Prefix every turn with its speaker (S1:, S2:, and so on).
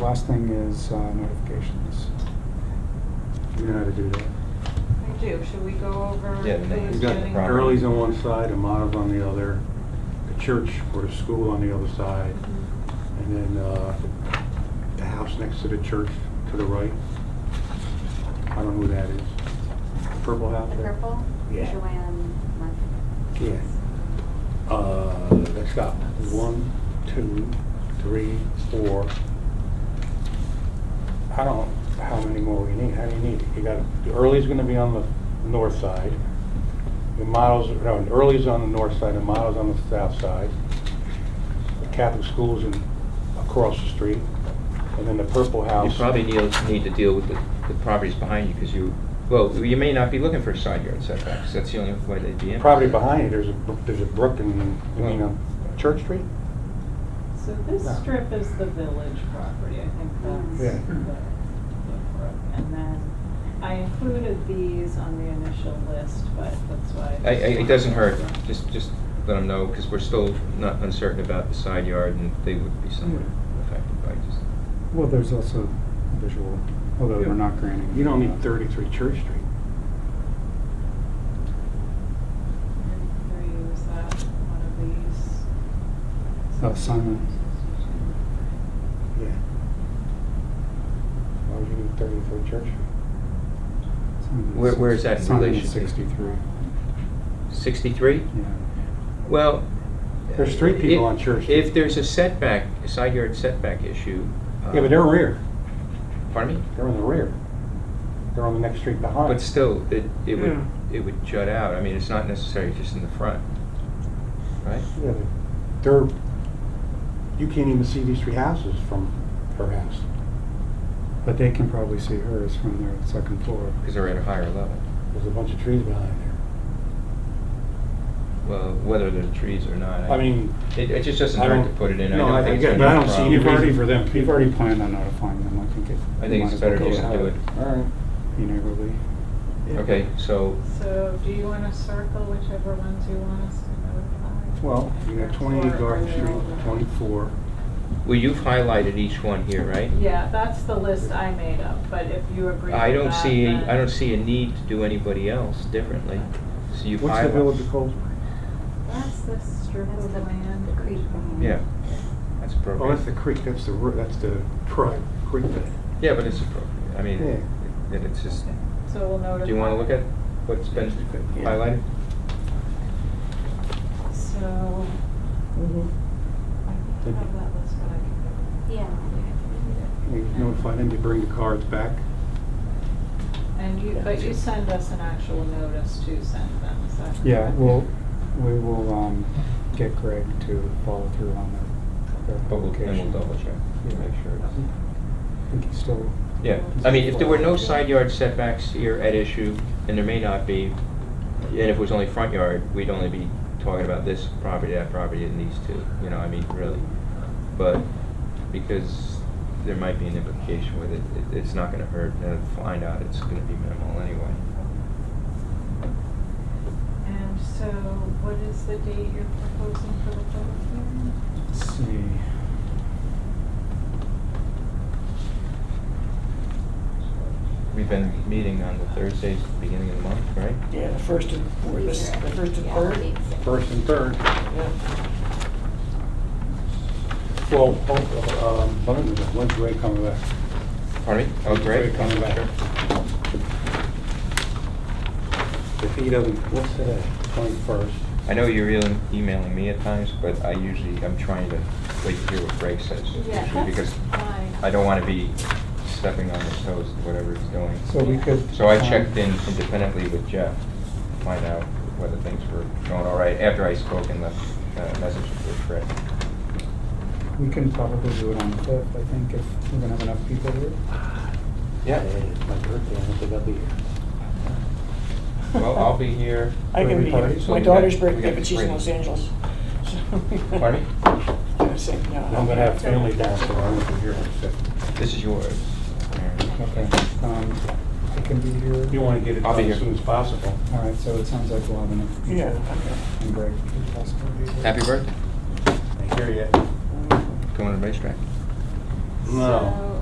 S1: last thing is uh, notifications. You know how to do that.
S2: I do, should we go over?
S3: Yeah,
S2: who is
S3: names. It's
S1: You've got
S2: getting-
S3: Right.
S1: Early's on one side, Amativ on the other, the church or the school on the other side,
S2: Mhm.
S1: and then uh, the house next to the church to the right. I don't know who that is. Purple house
S4: The
S1: there?
S4: purple?
S1: Yeah.
S4: Joanne Murphy.
S1: Yeah. Uh, Let's stop. One, two, three, four. I don't, know how many more we need? How do you need? You got, Early's gonna be on the north side. The models, no, Early's on the north side, the models on the south side. The Catholic school's in, across the street. And then the Purple
S3: You
S1: House.
S3: probably need, need to deal with the, the properties behind you, because you, well, you may not be looking for side yard setbacks, that's the only way they'd be in.
S1: Property behind you, there's a, bro- there's a brook in, you mean, um, Church Street?
S5: So this
S1: No.
S5: strip is the village property, I think that's
S1: Yeah.
S5: the, the brook. And then I included these on the initial list, but that's why.
S3: I, I, it doesn't hurt, just, just let them know, because we're still not uncertain about the side yard, and they would be somewhat
S1: Hmm.
S3: affected by just.
S6: Well, there's also visual, although we're not granting.
S1: You don't need thirty-three Church Street.
S5: Three, was that one of these?
S6: Oh, Simon.
S1: Yeah. Why would you need thirty-three Church Street?
S3: Where- where is that in
S6: It's on
S3: relation to-
S6: Sixty-three,
S3: Sixty-three?
S6: yeah.
S3: Well.
S1: There's three people
S3: if-
S1: on Church Street.
S3: If there's a setback, a side yard setback issue. uh,
S1: Yeah, but they're rear,
S3: Pardon me?
S1: they're in the rear. They're on the next street behind.
S3: But still, it, it would,
S1: Yeah.
S3: it would jut out, I mean, it's not necessarily just in the front, right?
S1: Yeah, but They're, you can't even see these three houses from her house.
S6: But they can probably see hers from their second floor.
S3: Because they're at a higher level.
S1: There's a bunch of trees behind there.
S3: Well, whether they're trees or not.
S1: I mean,
S3: It, it just doesn't
S1: I
S3: hurt
S1: don't-
S3: to put it in.
S1: no, I
S3: think it's
S1: get it, but
S3: gonna be
S1: I
S3: a
S1: don't see
S3: problem.
S1: any reason for them.
S6: You've already planned on notifying them, I think it.
S3: I
S6: you
S3: think
S6: might
S3: it's
S6: as well
S3: better
S6: go
S3: just
S6: ahead.
S3: do it.
S1: All right.
S6: Be neighborly.
S3: Okay, so,
S5: So do you wanna circle whichever ones you want us to notify?
S1: Well, you got
S5: Or-
S1: twenty-eight
S5: or
S1: Garden
S5: they're all-
S1: Street, twenty-four.
S3: well, you've highlighted each one here, right?
S5: Yeah, that's the list I made up, but if you agree with that,
S3: I don't see,
S5: then-
S3: I don't see a need to do anybody else differently. So you've highlighted.
S1: What's the Village of Cold?
S5: That's the strip
S4: That's
S5: of
S4: the
S5: land.
S4: the creek. behind.
S3: Yeah, that's
S1: Oh, that's the
S3: appropriate.
S1: creek, that's the, ro- that's the truck, creek bed.
S3: Yeah, but it's appropriate. I mean, it- it- it's just,
S5: So we'll notify.
S3: do you wanna look at what's been
S1: Yeah.
S3: highlighted?
S5: So, I
S6: Mm-hmm.
S5: think I have that list, but I can go.
S4: Yeah.
S1: You notify them to bring the cards back.
S5: And you, but you send us an actual notice to send them, is that correct?
S6: Yeah, well, we will, um, get Greg to follow through on their, their
S3: But we'll,
S6: publication.
S3: and we'll double check, to
S6: Yeah.
S3: make sure. it's-
S6: I think he's still,
S3: Yeah, I mean, if there were no side yard setbacks here at issue, and there may not be, and if it was only front yard, we'd only be talking about this property, that property, and these two, you know, I mean, really. But because there might be an implication with it, it- it's not gonna hurt, and if find out it's gonna be minimal anyway.
S5: And so what is the date you're proposing for the public hearing?
S6: let's see.
S3: We've been meeting on the Thursdays, at the beginning of the month, right?
S7: Yeah, the first and, or the, s- the first and
S4: Yeah,
S7: third?
S4: dates, yeah.
S1: First and third.
S7: Yeah.
S1: Well, oh, um, when's Ray coming back?
S3: Pardon me? Oh, great.
S1: Ray coming back. If he doesn't, what's today? Twenty-first.
S3: I know you're really emailing me at times, but I usually, I'm trying to wait to hear what Greg says.
S5: Yeah,
S3: usually,
S5: that's
S3: Because
S5: fine.
S3: I don't want to be stepping on his toes, whatever he's doing.
S6: So we could.
S3: So I
S6: um,
S3: checked in independently with Jeff, to find out whether things were going all right, after I spoke and left uh, message with Fred.
S6: We can probably do it on the fifth, I think, if we're gonna have enough people here.
S3: Yeah.
S1: It's my birthday, I don't think I'll be here.
S3: Well, I'll be here,
S7: I can be here.
S6: Everybody,
S3: so
S7: My
S3: we got-
S7: daughter's
S3: we
S7: birthday,
S3: got
S7: but she's in
S3: three.
S7: Los Angeles. So-
S3: pardon me?
S7: I was saying, no,
S1: I'm gonna have family down, so I won't be here.
S3: This is yours. Mary.
S6: Okay, um, I can be here.
S1: You wanna get it
S3: I'll
S1: done
S3: be
S1: as
S3: here.
S1: soon as possible.
S6: All right, so it sounds like we'll have enough. people.
S7: Yeah, okay.
S6: And Greg can possibly be here.
S3: Happy birthday,
S1: I hear you.
S3: going to the racetrack.
S1: No.